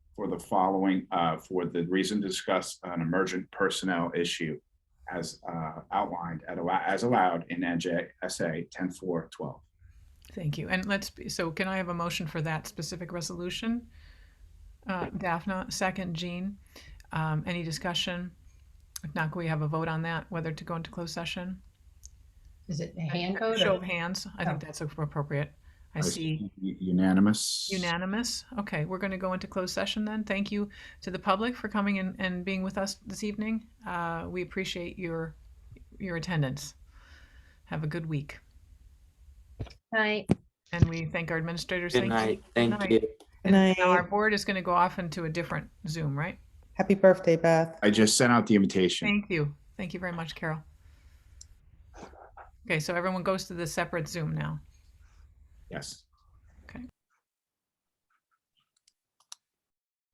following uh, for the reason discussed an emergent personnel issue as uh, outlined at allo- as allowed in NJSA 10412. Thank you. And let's, be so can I have a motion for that specific resolution? Uh, Daphne, second, Jean. Um, any discussion? If not, can we have a vote on that, whether to go into closed session? Is it a hand vote? Show or- Oh. of hands. I think that's appropriate. I see Unanimous. unanimous. Okay, we're going to go into closed session then. Thank you to the public for coming and, and being with us this evening. Uh, we appreciate your, your attendance. Have a good week. Aye. And we thank our administrators. Good Thank you. night. Good Thank night. you. Good And now our night. board is going to go off into a different Zoom, right? Happy birthday, Beth. I just sent out the invitation. Thank you. Thank you very much, Carol. Okay, so everyone goes to the separate Zoom now. Yes.